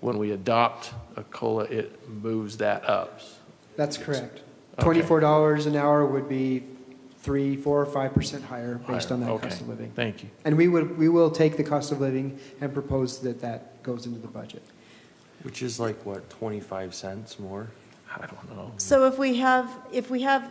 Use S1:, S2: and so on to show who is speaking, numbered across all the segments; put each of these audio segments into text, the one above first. S1: when we adopt a COLA, it moves that up.
S2: That's correct.
S1: Okay.
S2: Twenty-four dollars an hour would be three, four, or five percent higher based on
S1: Higher.
S2: that
S1: Okay.
S2: cost of living.
S1: Thank you.
S2: And we would, we will take the cost of living and propose that that goes into the budget.
S3: Which is like, what, 25 cents more?
S1: I don't know.
S4: So if we have, if we have,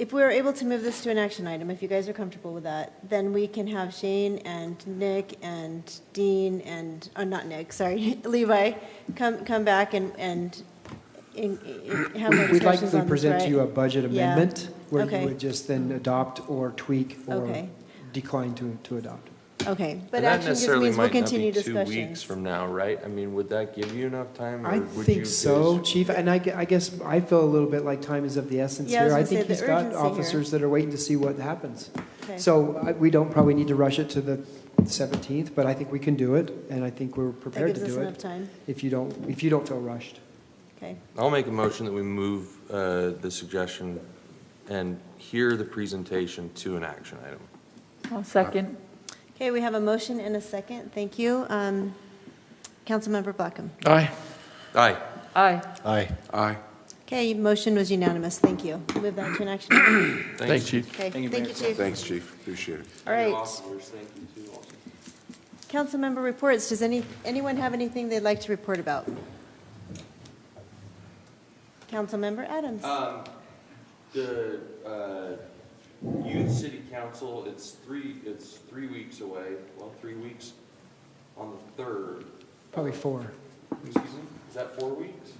S4: if we're able to move this to an action item, if you guys are comfortable with that, then we can have Shane and Nick and Dean and, oh, not Nick, sorry, Levi, come, come back and, and in- in- have more
S2: We'd like
S4: discussions
S2: to
S4: on this,
S2: present to you a
S4: right?
S2: budget
S4: Yeah.
S2: amendment where
S4: Okay.
S2: you would just then adopt or tweak or
S4: Okay.
S2: decline to, to adopt.
S4: Okay, but
S3: And that
S4: action just
S3: necessarily
S4: means we'll
S3: might not be
S4: continue
S3: Two weeks
S4: discussions.
S3: from now, right? I mean, would that give you enough time?
S2: I
S3: or would you
S2: think so,
S3: guys-
S2: Chief, and I, gue- I guess I feel a little bit like time is of the essence
S4: Yeah, I was
S2: here. I
S4: gonna say
S2: think
S4: the
S2: he's got
S4: urgency here.
S2: officers that are waiting to see what happens.
S4: Okay.
S2: So I- we don't probably need to rush it to the 17th, but I think we can do it, and I think we're
S4: That
S2: prepared
S4: gives
S2: to
S4: us
S2: do
S4: enough
S2: it
S4: time,
S2: if you don't, if you don't feel rushed.
S4: okay.
S3: I'll make a motion that we move uh, the suggestion and hear the presentation to an action item.
S5: I'll second.
S4: Okay, we have a motion and a second, thank you. Um, Councilmember Blackham.
S1: Aye.
S3: Aye.
S5: Aye.
S3: Aye.
S4: Okay, motion was unanimous, thank you. Move that to an action item.
S1: Thanks, Chief.
S4: Okay, thank you, Chief.
S6: Thanks, Chief, appreciate it.
S4: All right. Council member reports, does any, anyone have anything they'd like to report about? Councilmember Adams.
S3: Um, the, uh, youth city council, it's three, it's three weeks away, well, three weeks on the third.
S2: Probably four.
S3: Excuse me, is that four weeks?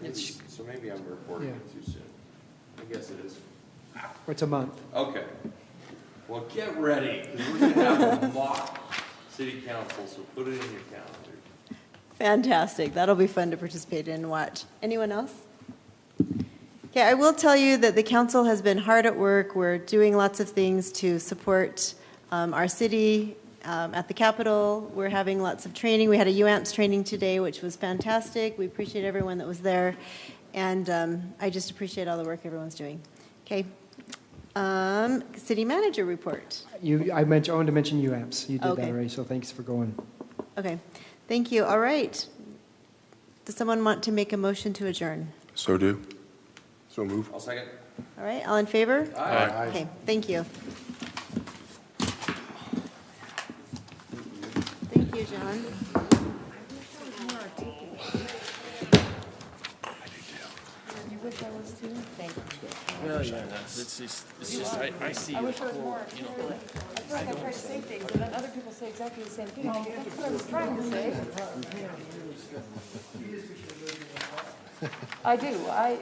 S3: Maybe-
S2: It's-
S3: So maybe I'm reporting it too soon. I guess it is.
S2: It's a month.
S3: Okay. Well, get ready, 'cause we're gonna have a mock city council, so put it in your calendar.
S4: Fantastic, that'll be fun to participate in and watch. Anyone else? Okay, I will tell you that the council has been hard at work. We're doing lots of things to support um, our city um, at the Capitol. We're having lots of training. We had a UAMPS training today, which was fantastic. We appreciate everyone that was there, and um, I just appreciate all the work everyone's doing. Okay. Um, City manager report.
S2: You, I mentioned, I wanted to mention UAMPS. You did that
S4: Okay.
S2: already, so thanks for going.
S4: Okay, thank you. All right. Does someone want to make a motion to adjourn?
S6: So do. So move.
S3: I'll second.
S4: All right, all in favor? Okay, thank you. Thank you, John.
S7: I try to say things, and then other people say exactly the same thing. That's what I was trying to say. I do, I.